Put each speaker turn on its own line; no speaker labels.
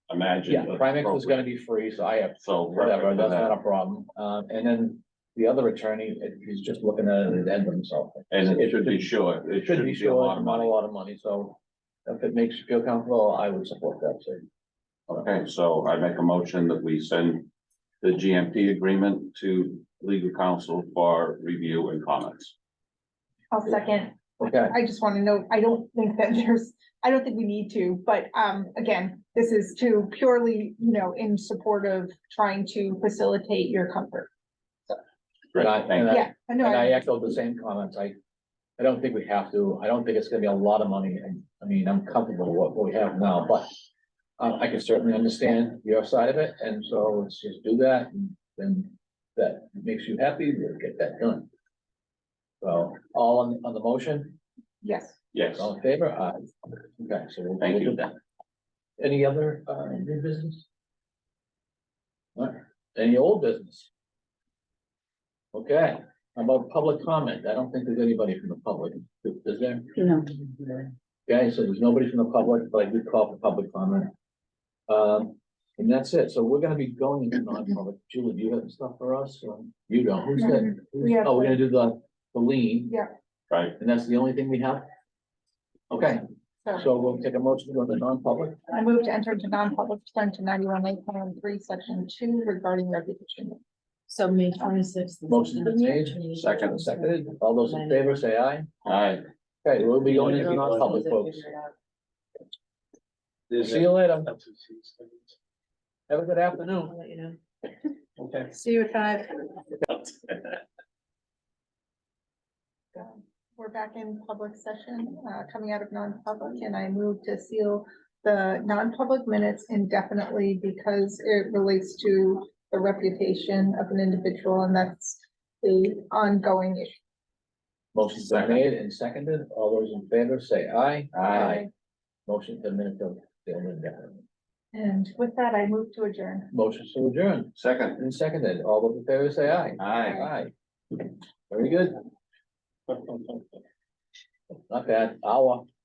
imagine.
Yeah,
was
Primex was gonna
appropriate.
be free, so I have,
So.
whatever,
recommend
that's
that.
not a problem. Um, and then the other attorney, it- he's just looking at an addendum, so.
And it should be short, it
It should be
a
sure,
lot
it's
of
not a
money.
lot of money, so if it makes you feel comfortable, I would support that, so.
Okay, so I make a motion that we send the GMP agreement to legal counsel for review and comments.
I'll second.
Okay,
I just want to know, I don't think that there's, I don't think we need to, but um, again, this is to purely, you know, in support of trying to facilitate your comfort.
Great,
Right,
thank you.
I-
Yeah, I know,
and I
I-
echoed the same comments, I, I don't think we have to, I don't think it's gonna be a lot of money, I, I mean, I'm comfortable with what we have now, but. Uh, I can certainly understand your side of it, and so let's just do that, and then that makes you happy, we'll get that done. So, all on, on the motion,
yes.
Yes,
all in favor, aye, okay, so we'll.
Thank
we'll do
you.
that. Any other, uh, new business? All right, any old business? Okay, how about public comment, I don't think there's anybody from the public, is there?
No.
Okay, so there's nobody from the public, but I did call for public comment. Um, and that's it, so we're gonna be going into non-public, Julie, do you have stuff for us, or you don't, who's that?
We have-
Oh, we're gonna do the, the lean.
right,
And that's the only thing we have? Okay,
So
so we'll take a motion to go to non-public.
I move to enter into non-public pursuant to ninety-one, eight, one, three, section two regarding reputation.
So May twenty-sixth.
Motion's been made.
Second.
Seconded, all those in favor say aye.
all right.
Okay, we'll be going into non-public, folks.
There's
See
a-
you later. Have a good afternoon.
Okay.
See you at five.
um, We're back in public session, uh, coming out of non-public, and I move to seal the non-public minutes indefinitely because it relates to the reputation of an individual, and that's the ongoing issue.
Motion's been made and seconded. All those in favor say aye. Motion to minute of the only definite.
And with that, I move to adjourn.
Motion to adjourn
Second,
and seconded. All those in favor say aye.
aye.
Aye. Very good. Not bad. Hour.